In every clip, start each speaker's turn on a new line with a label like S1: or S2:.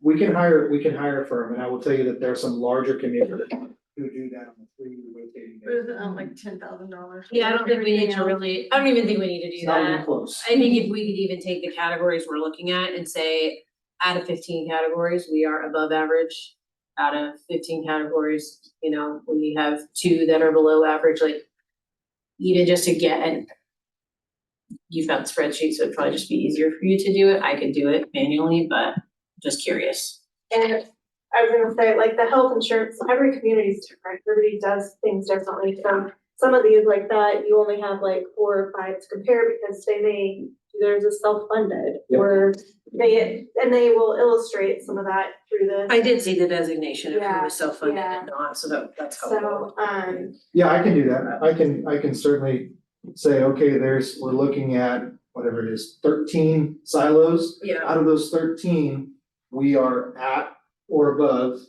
S1: we can hire, we can hire a firm, and I will tell you that there are some larger communities who do that on a three-year rotating
S2: What is
S1: basis.
S2: it, um, like ten thousand dollars?
S3: Yeah, I don't think we need to really, I don't even think we need to
S1: It's
S3: do
S1: not even
S3: that.
S1: close.
S3: I think if we could even take the categories we're looking at and say, out of fifteen categories, we are above average. Out of fifteen categories, you know, we have two that are below average, like even just to get and you've got spreadsheets, so it'd probably just be easier for you to do it. I could do it manually, but just curious.
S4: And I was gonna say, like, the health insurance, every community is different, everybody does things differently, so some of these like that, you only have like four or five to compare because they may, theirs is self-funded,
S1: Yep.
S4: or they, and they will illustrate some of that through this.
S3: I did see the designation of who
S4: Yeah,
S3: was self-funded
S4: yeah.
S3: and not, so that, that's helpful.
S4: So, um,
S1: Yeah, I can do that. I can, I can certainly say, okay, there's, we're looking at whatever it is, thirteen silos.
S3: Yeah,
S1: Out of those thirteen, we are at or above.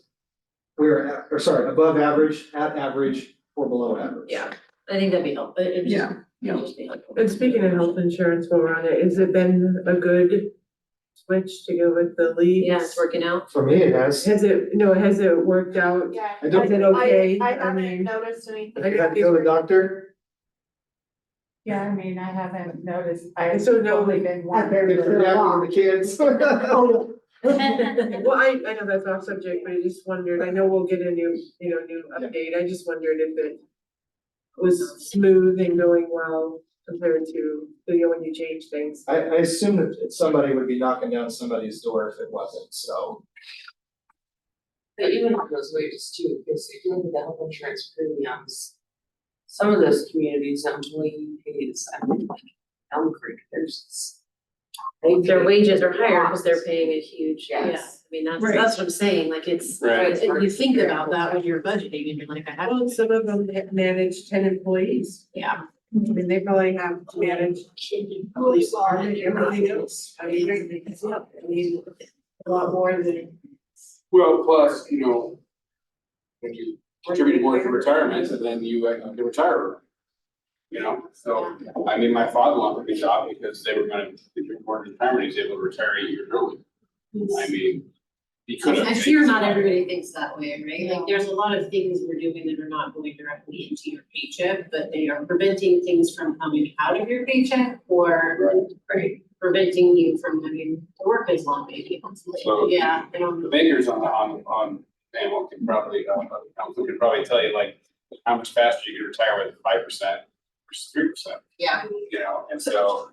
S1: We're at, or sorry, above average, at average, or below average.
S3: yeah, I think that'd be helpful. It'd just-
S2: Yeah, yeah.
S3: it'd just be helpful.
S5: And speaking of health insurance, while we're on it, has it been a good switch to go with the leagues?
S3: Yeah, it's working out.
S1: For me, it has.
S5: Has it, no, has it worked out?
S4: yeah.
S1: I don't-
S5: Is it okay?
S4: I, I
S5: mean,
S4: haven't noticed anything.
S1: Have you had to go to the doctor?
S6: Yeah, I mean, I haven't noticed, I've
S5: So no-
S6: only been one.
S1: Apparently for the kids.
S5: Oh, Well, I, I know that's off subject, but I just wondered, I know we'll get a new, you know, new update, I just wondered if it was smooth and going well compared to, you know, when you change things.
S1: I, I assume that somebody would be knocking down somebody's door if it wasn't, so.
S7: But even on those wages too, because if you look at the health insurance premiums, some of those communities, I'm only pays, I mean, like Elm Creek, there's. they
S3: Their
S7: pay
S3: wages are higher because they're
S7: lots.
S3: paying a huge, yeah, I
S7: Yes.
S3: mean, that's,
S2: Right.
S3: that's what I'm saying, like, it's,
S7: Right.
S3: it's- you think about that when you're budgeting, and you're like, I have,
S5: Well, some of them ha- manage ten employees,
S3: yeah.
S5: I mean, they probably have managed at least more than everything else, I mean, it's not- I mean, a lot more than.
S8: Well, plus, you know, when you contribute more to retirement, and then you uh, can retire. You know, so, I mean, my father-in-law took a job because they were gonna, they were born in retirement, he's able to retire eight years early. I mean, he could have.
S3: I fear not everybody thinks that way, right? Like, there's a lot of things we're doing that are not going directly into your paycheck, but they are preventing things from coming out of your paycheck or
S7: Right.
S3: preventing you from having to work as long, maybe, hopefully,
S8: So-
S3: yeah, I don't know.
S8: The bakers on, on, on, panel can probably, uh, council can probably tell you like, how much faster you can retire with five percent versus three percent.
S3: Yeah.
S8: You know, and so,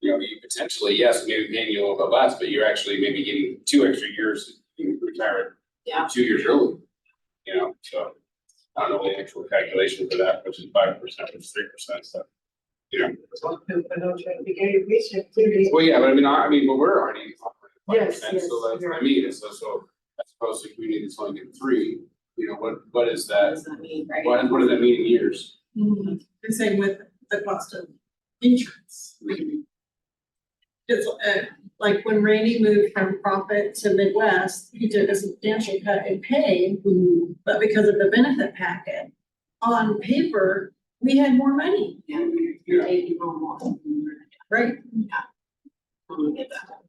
S8: you know, you potentially, yes, maybe paying you a little bit less, but you're actually maybe getting two extra years, you can retire
S3: Yeah.
S8: two years early. You know, so, I don't know the actual calculation for that, which is five percent, which is three percent, so. You know, well, yeah, but I mean, I, I mean, but we're already offering five
S5: Yes,
S8: percent,
S5: yes,
S8: so that's what I
S5: you're-
S8: mean, is so, so. As opposed to community that's only getting three, you know, what, what is
S3: What
S8: that,
S3: does that mean, right?
S8: what, what does that mean in years?
S2: The Mm-hmm. same with the cost of insurance. It's uh, like when Randy moved from profit to Midwest, he took a substantial cut in pay,
S3: Mm-hmm.
S2: but because of the benefit packet, on paper, we had more money.
S3: Yeah, you're
S8: Yeah.
S3: taking home more.
S2: Right.
S3: I don't get that.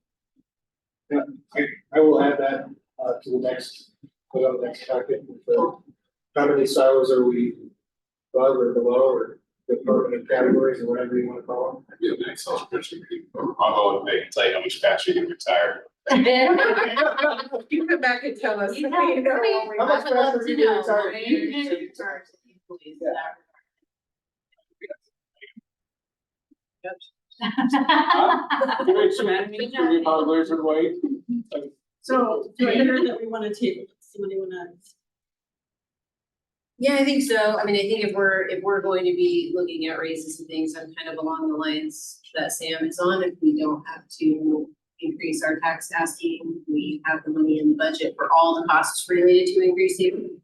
S1: I will add that, uh, to the next, put on the next packet. So, How many silos are we above or below or department categories or whatever you wanna call them?
S8: You know, the Excel spreadsheet, although they can tell you how much faster you can retire.
S5: You come back and tell us.
S1: How much faster are you gonna retire?
S8: Wait, so, can we follow Blair's or White?
S2: So do I hear that we want to table, it? somebody want to?
S3: Yeah, I think so. I mean, I think if we're, if we're going to be looking at raises and things, I'm kind of along the lines that Sam is on. If we don't have to increase our tax asking, we have the money in the budget for all the costs related to increasing.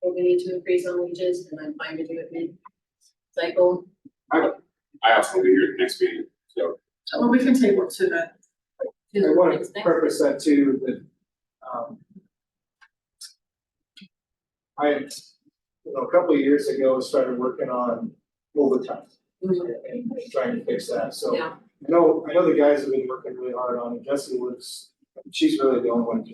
S3: What we need to increase on wages, and I'm fine to do it mid-cycle.
S8: I also will be here at the next meeting, so.
S2: Well, we can table it to the
S1: I wanna
S3: Next.
S1: preface that too, that, um. I, had, you know, a couple of years ago, started working on overtime and trying to fix that, so.
S3: Yeah.
S1: I know, I know the guys have been working really hard on it, Jesse was, she's really the only one who